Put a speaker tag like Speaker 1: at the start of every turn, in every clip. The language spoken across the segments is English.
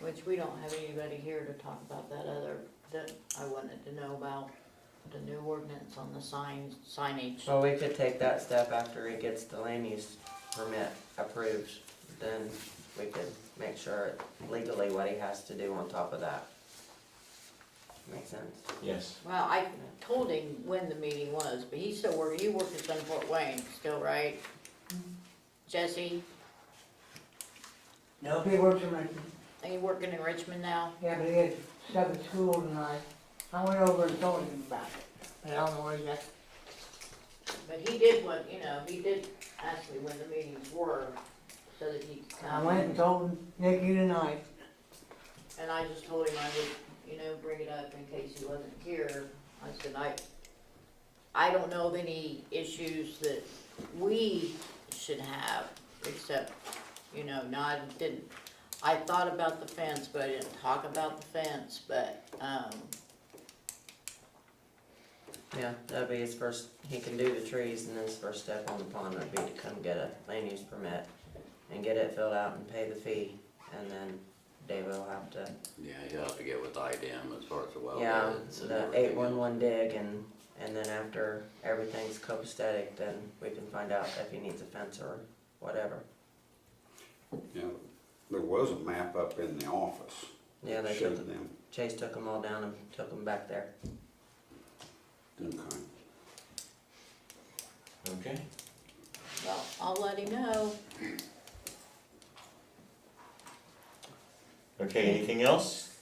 Speaker 1: Which we don't have anybody here to talk about that other, that I wanted to know about, the new ordinance on the signs, signage.
Speaker 2: Well, we could take that step after it gets the land use permit approved, then we could make sure legally what he has to do on top of that. Makes sense.
Speaker 3: Yes.
Speaker 1: Well, I told him when the meeting was, but he's still working, you work at Sun Fort Wayne still, right? Jesse,
Speaker 4: No, he works in my,
Speaker 1: are you working in Richmond now?
Speaker 4: yeah, but he had stuff at school tonight. I went over and told him about it, but I don't know where he's at.
Speaker 1: But he did what, you know, he did ask me when the meetings were, so that he could
Speaker 4: I
Speaker 1: come.
Speaker 4: went and told Nikki tonight.
Speaker 1: And I just told him I would, you know, bring it up in case he wasn't here. I said, I, I don't know of any issues that we should have, except, you know, no, I didn't. I thought about the fence, but I didn't talk about the fence, but, um,
Speaker 2: Yeah, that'd be his first, he can do the trees and his first step on the pond would be to come get a land use permit and get it filled out and pay the fee, and then David will have to,
Speaker 5: Yeah, he'll have to get with IDM as far as the well.
Speaker 2: yeah,
Speaker 5: beds and
Speaker 2: the
Speaker 5: everything
Speaker 2: eight one one dig and, and then after everything's copacetic, then we can find out if he needs a fence or whatever.
Speaker 6: Yeah, there was a map up in the office.
Speaker 2: Yeah, they took,
Speaker 6: Showed them,
Speaker 2: Chase took them all down and took them back there.
Speaker 6: okay.
Speaker 3: Okay.
Speaker 1: well, I'll let him know.
Speaker 3: Okay, anything else?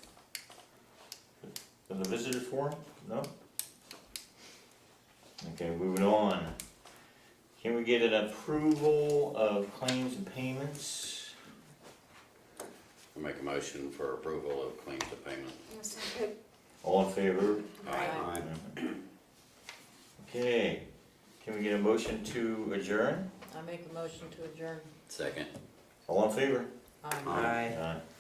Speaker 3: For the visitor forum? No? Okay, moving on. Can we get an approval of claims and payments?
Speaker 5: I make a motion for approval of claims to payment.
Speaker 7: Yes, I could.
Speaker 3: All in favor?
Speaker 1: Aye.
Speaker 6: I
Speaker 3: Okay, can we get a motion to adjourn?
Speaker 1: I make a motion to adjourn.
Speaker 5: Second.
Speaker 3: All in favor?
Speaker 1: Aye.
Speaker 6: Aye.
Speaker 2: Aye.
Speaker 3: Aye.